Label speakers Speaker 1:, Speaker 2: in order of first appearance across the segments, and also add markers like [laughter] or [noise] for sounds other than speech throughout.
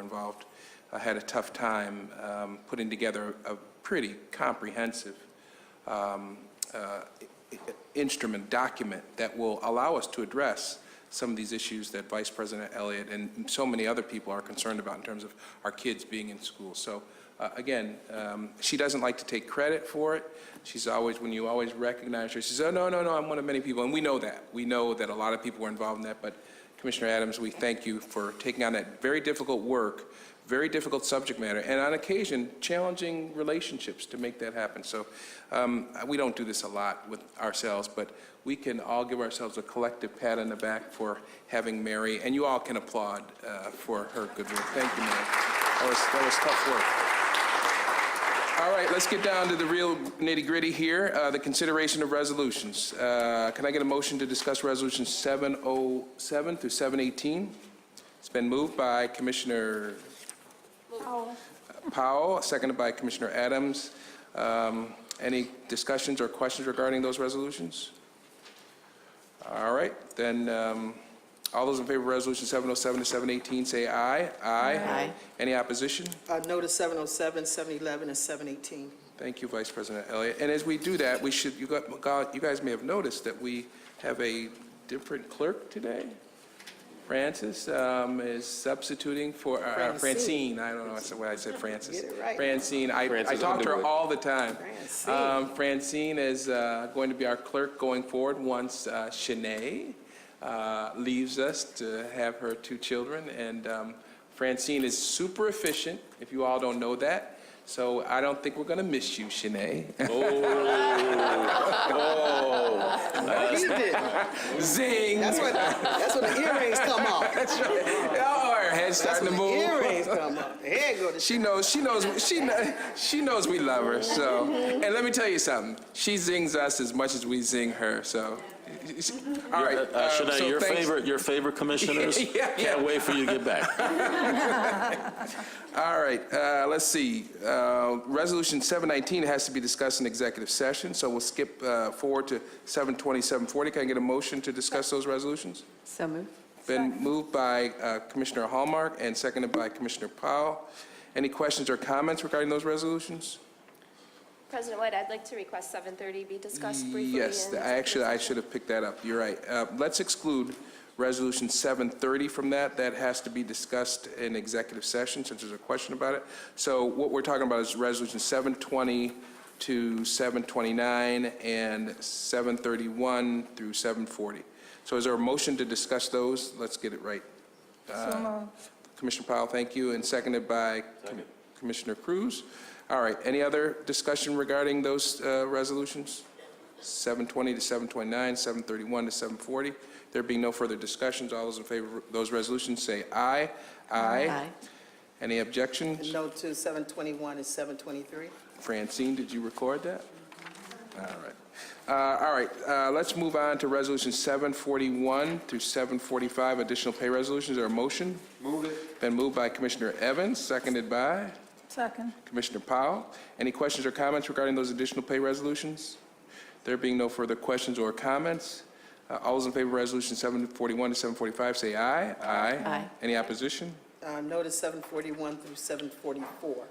Speaker 1: involved uh, had a tough time um, putting together a pretty comprehensive um, uh, instrument, document that will allow us to address some of these issues that Vice President Elliott and so many other people are concerned about in terms of our kids being in school. So uh, again, um, she doesn't like to take credit for it. She's always, when you always recognize her, she says, "Oh, no, no, no, I'm one of many people." And we know that. We know that a lot of people were involved in that, but Commissioner Adams, we thank you for taking on that very difficult work, very difficult subject matter, and on occasion, challenging relationships to make that happen. So um, we don't do this a lot with ourselves, but we can all give ourselves a collective pat on the back for having Mary, and you all can applaud uh, for her good work. Thank you, Mary. That was, that was tough work. All right, let's get down to the real nitty-gritty here, uh, the consideration of resolutions. Uh, Can I get a motion to discuss Resolutions 707 through 718? It's been moved by Commissioner
Speaker 2: Oh,
Speaker 1: Powell, seconded by Commissioner Adams. Um, Any discussions or questions regarding those resolutions? All right, then, um, all those in favor of Resolution 707 to 718, say aye. Aye. Any opposition?
Speaker 3: Uh, Notice 707, 711, and 718.
Speaker 1: Thank you, Vice President Elliott. And as we do that, we should, you got- got- you guys may have noticed that we have a different clerk today. Francis um, is substituting for, uh, Francine,
Speaker 3: Francine.
Speaker 1: I don't know, that's what I said, Francis.
Speaker 3: Get it right.
Speaker 1: Francine, I I
Speaker 4: Francis
Speaker 1: talk to her
Speaker 4: Underwood.
Speaker 1: all the time.
Speaker 3: Francine.
Speaker 1: Um, Francine is uh, going to be our clerk going forward once uh, Shanae uh, leaves us to have her two children. And um, Francine is super efficient, if you all don't know that. So I don't think we're going to miss you, Shanae.
Speaker 3: You did.
Speaker 1: [laughs] Zing!
Speaker 3: That's when, that's when the earrings come off.
Speaker 1: [laughs] Oh, her head's
Speaker 3: That's
Speaker 1: starting
Speaker 3: when
Speaker 1: to
Speaker 3: the
Speaker 1: move.
Speaker 3: earrings come off. There go the
Speaker 1: She knows, she knows, she, kn- she knows we love her, so.
Speaker 3: Mm-hmm.
Speaker 1: And let me tell you something, she zings us as much as we zing her, so. All right.
Speaker 4: Uh,
Speaker 1: um, so
Speaker 4: Shanae, your
Speaker 1: thanks-
Speaker 4: favorite, your favorite commissioners?
Speaker 1: [laughs] Yeah, yeah.
Speaker 4: Can't wait for you to get back.
Speaker 1: All right, uh, let's see. Uh, Resolution 719 has to be discussed in executive session, so we'll skip uh, forward to 720, 740. Can I get a motion to discuss those resolutions?
Speaker 5: So moved.
Speaker 1: Been moved by uh, Commissioner Hallmark and seconded by Commissioner Powell. Any questions or comments regarding those resolutions?
Speaker 2: President White, I'd like to request 7:30 be discussed briefly.
Speaker 1: Yes,
Speaker 2: in
Speaker 1: I actually, I should have picked that up. You're right. Uh, Let's exclude Resolution 730 from that. That has to be discussed in executive session since there's a question about it. So what we're talking about is Resolution 720 to 729 and 731 through 740. So is there a motion to discuss those? Let's get it right. Commissioner Powell, thank you, and seconded by Commissioner Cruz. All right, any other discussion regarding those uh, resolutions? 720 to 729, 731 to 740. There being no further discussions, all those in favor of those resolutions say aye. Aye. Any objections?
Speaker 3: No to 721 and 723.
Speaker 1: Francine, did you record that? All right. Uh, All right, uh, let's move on to Resolution 741 through 745, additional pay resolutions. Or a motion? Move it. Been moved by Commissioner Evans, seconded by
Speaker 5: Second.
Speaker 1: Commissioner Powell. Any questions or comments regarding those additional pay resolutions? There being no further questions or comments, uh, all those in favor of Resolution 741 to 745, say aye.
Speaker 5: Aye.
Speaker 1: Any opposition?
Speaker 3: Uh, Notice 741 through 744.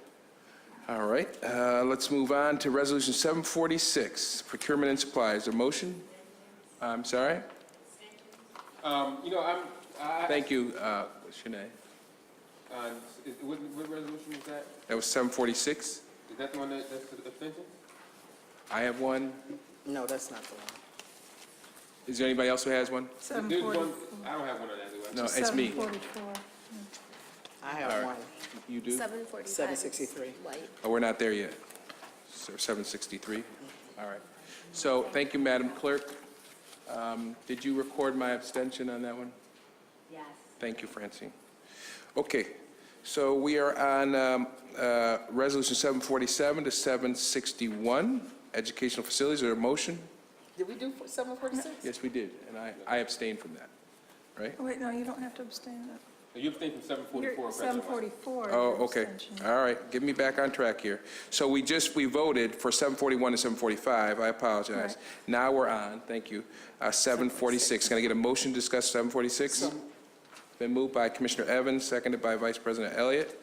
Speaker 1: All right, uh, let's move on to Resolution 746, procurement and supplies. A motion? I'm sorry?
Speaker 6: Um, You know, I'm, I,
Speaker 1: Thank you, uh, Shanae.
Speaker 6: uh, is- what, what resolution was that?
Speaker 1: That was 746.
Speaker 6: Is that the one that, that's the abstention?
Speaker 1: I have one.
Speaker 3: No, that's not the one.
Speaker 1: Is there anybody else who has one?
Speaker 6: There's one, I don't have one on that, do
Speaker 1: No,
Speaker 6: I?
Speaker 1: it's me.
Speaker 5: 744.
Speaker 3: I have one.
Speaker 1: You do?
Speaker 2: 7:45.
Speaker 3: 7:63.
Speaker 2: White.
Speaker 1: Oh, we're not there yet. So 763? All right. So, thank you, Madam Clerk. Um, Did you record my abstention on that one? Yes. Thank you, Francine. Okay, so we are on um, uh, Resolution 747 to 761, educational facilities. Is there a motion?
Speaker 3: Did we do 746?
Speaker 1: Yes, we did, and I I abstained from that, right?
Speaker 5: Oh, Wait, no, you don't have to abstain.
Speaker 6: You abstained from seven
Speaker 5: You're
Speaker 6: forty-four, President White.
Speaker 5: 744.
Speaker 1: Oh,
Speaker 5: your
Speaker 1: okay.
Speaker 5: abstention.
Speaker 1: All right, get me back on track here. So we just, we voted for 741 and 745, I apologize. Now we're on, thank you, uh, 746. Can I get a motion to discuss 746? Been moved by Commissioner Evans, seconded by Vice President Elliott.